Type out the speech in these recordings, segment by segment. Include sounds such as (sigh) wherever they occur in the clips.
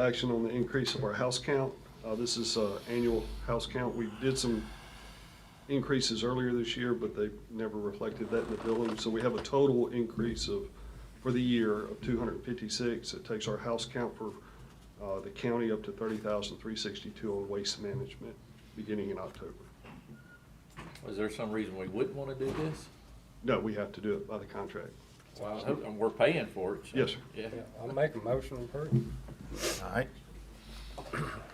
Action on the increase of our house count. Uh, This is uh, annual house count. We did some increases earlier this year, but they never reflected that in the billing. So we have a total increase of, for the year, of 256. It takes our house count for uh, the county up to 30,362 on waste management, beginning in October. Is there some reason we wouldn't want to do this? No, we have to do it by the contract. Well, I hope- and we're paying for it. so- Yes, sir. Yeah. I'll make a motion to approve. All right.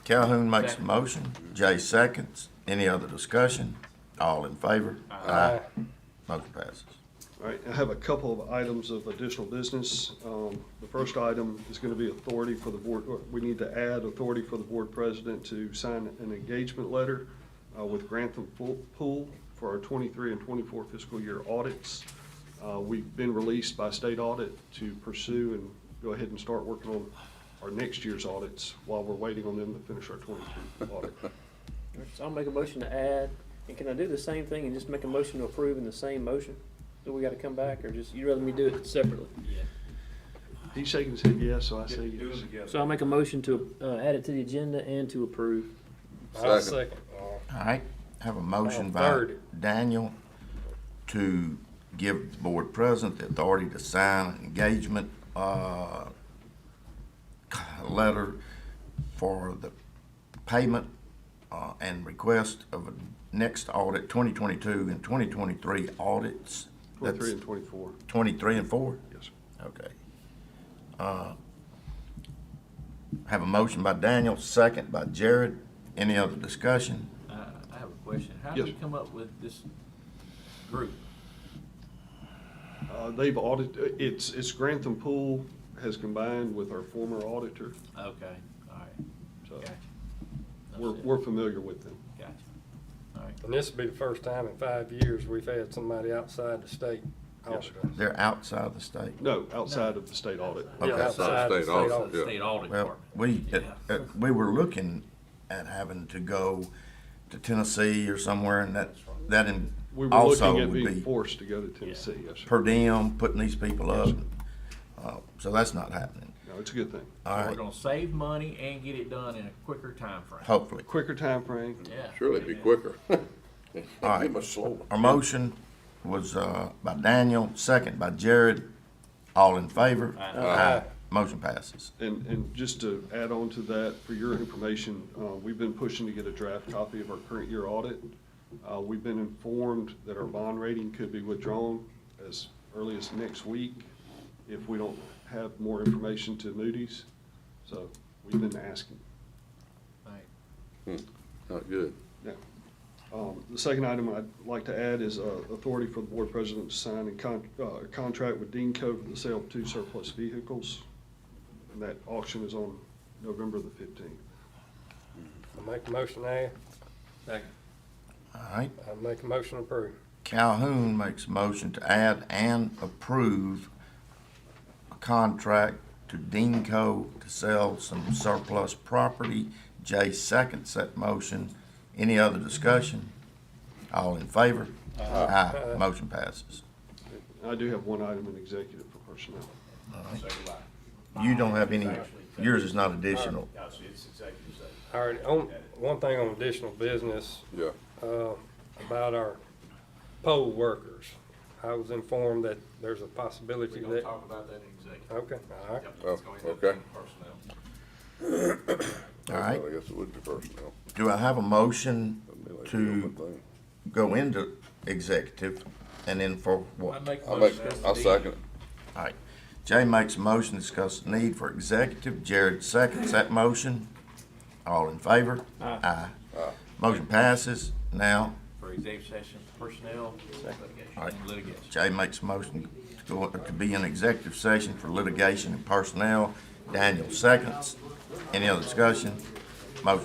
Calhoun makes a motion, Jay seconds. Any other discussion? All in favor? Aye. Motion passes. All right, I have a couple of items of additional business. Um, The first item is going to be authority for the board, or we need to add authority for the board president to sign an engagement letter uh, with Grantham Pool- Pool for our 23 and 24 fiscal year audits. Uh, We've been released by state audit to pursue and go ahead and start working on our next year's audits while we're waiting on them to finish our 22 audit. So I'll make a motion to add, and can I do the same thing and just make a motion to approve in the same motion? Do we gotta come back, or just, you'd rather me do it separately? He's shaking his head yes, so I say yes. So I'll make a motion to, uh, add it to the agenda and to approve. I'll second. All right, have a motion Now, by third. Daniel to give the board president the authority to sign an engagement, uh, letter for the payment, uh, and request of a next audit, twenty twenty-two and twenty twenty-three audits. 23 That's and 24, Twenty-three and four? yes, sir. Okay. Uh, Have a motion by Daniel, second by Jared. Any other discussion? Uh, I have a question. How did Yes. you come up with this group? Uh, They've audited, it's, it's Grantham Pool has combined with our former auditor, Okay, all right. so Gotcha. That's we're, it. we're familiar with them. Gotcha. All right. And this will be the first time in five years we've had somebody outside the state Yes, audit sir. us. They're outside the state. No, outside of the state audit. Yeah, Okay. outside the State audit, So the yeah. State Audit Well, Department. we, uh, Yeah. uh, we were looking at having to go to Tennessee or somewhere and that, that in- We were also looking at would being be forced to go to Tennessee, yes, sir. per diem, putting these people up. Uh, So that's not happening. No, it's a good thing. All So We're right, gonna save money and get it done in a quicker timeframe. hopefully. Quicker timeframe, Yeah. Surely it'd be quicker. (laughs) All right. Be much slower. Our motion was uh, by Daniel, second by Jared. All in favor? Aye. Motion passes. And, and just to add on to that, for your information, uh, we've been pushing to get a draft copy of our current year audit. Uh, we've been informed that our bond rating could be withdrawn as early as next week if we don't have more information to Moody's. So we've been asking. Thanks. Not good. Yeah. Um, The second item I'd like to add is uh, authority for the board president to sign a con- uh, a contract with Dean Co. for the sale of two surplus vehicles. And that auction is on November the 15th. I'll make a motion now. All right. I'll make a motion to approve. Calhoun makes a motion to add and approve a contract to Deanco to sell some surplus property. Jay seconds that motion. Any other discussion? All in favor? Aye. Motion passes. I do have one item in executive for personnel. You don't have any, yours is not additional. All right, on, one thing on additional business, Yeah. uh, about our poll workers. I was informed that there's a possibility that, about that in executive. okay, all right. Oh, okay. All right. I guess it would be personnel. Do I have a motion That'd be like the only to thing. go into executive and then for what? I make a I'll make, motion. that's I'll the- second it. All right. Jay makes a motion to discuss the need for executive. Jared seconds that motion. All in favor? Aye. Motion passes. Now, For executive session, personnel, litigation, All right. and litigation. Jay makes a motion to go, to be in executive session for litigation and personnel. Daniel seconds. Any other discussion? Motion